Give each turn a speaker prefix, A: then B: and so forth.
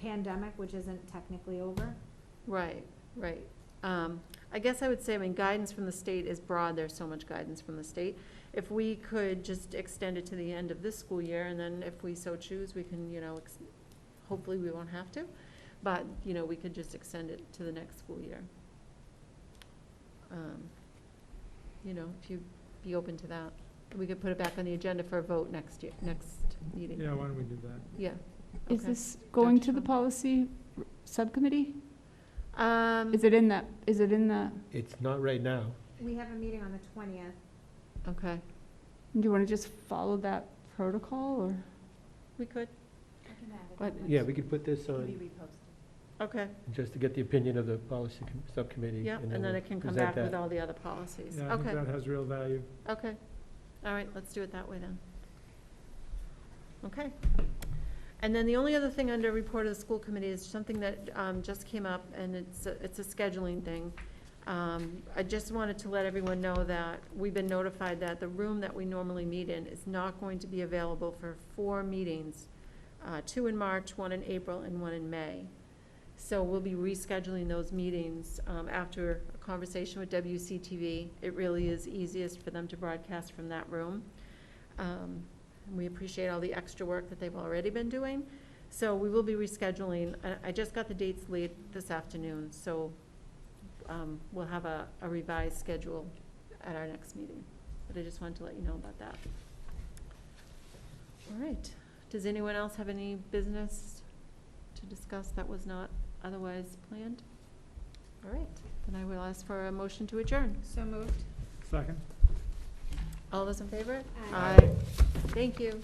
A: pandemic, which isn't technically over.
B: Right, right. Um, I guess I would say, I mean, guidance from the state is broad, there's so much guidance from the state. If we could just extend it to the end of this school year, and then if we so choose, we can, you know, ex- hopefully we won't have to, but, you know, we could just extend it to the next school year. Um, You know, if you'd be open to that, we could put it back on the agenda for a vote next year, next meeting.
C: Yeah, why don't we do that?
B: Yeah.
D: Is
B: okay.
D: this going
B: Dr.
D: to the
B: Schwab?
D: policy r- subcommittee?
B: Um,
D: Is it in that, is it in the,
C: It's not right now.
A: We have a meeting on the twentieth.
B: okay,
D: do you want to just follow that protocol or?
B: we could,
D: What-
C: Yeah, we could put this on,
B: okay.
C: just to get the opinion of the policy com- subcommittee.
B: Yeah, and then
C: we'll
B: it can come
C: present
B: back with
C: that.
B: all the other policies.
E: Yeah, I think
B: Okay,
E: that has real value.
B: okay. All right, let's do it that way then. Okay. And then the only other thing under report of the school committee is something that um, just came up, and it's, a- it's a scheduling thing. Um, I just wanted to let everyone know that we've been notified that the room that we normally meet in is not going to be available for four meetings, uh, two in March, one in April, and one in May. So we'll be rescheduling those meetings um, after a conversation with WCTV. It really is easiest for them to broadcast from that room. Um, and We appreciate all the extra work that they've already been doing. So we will be rescheduling. I- I just got the dates late this afternoon, so um, we'll have a a revised schedule at our next meeting. But I just wanted to let you know about that. All right. Does anyone else have any business to discuss that was not otherwise planned? All right, then I will ask for a motion to adjourn.
A: So moved.
E: Second?
B: All those in favor?
A: Aye.
B: Thank you.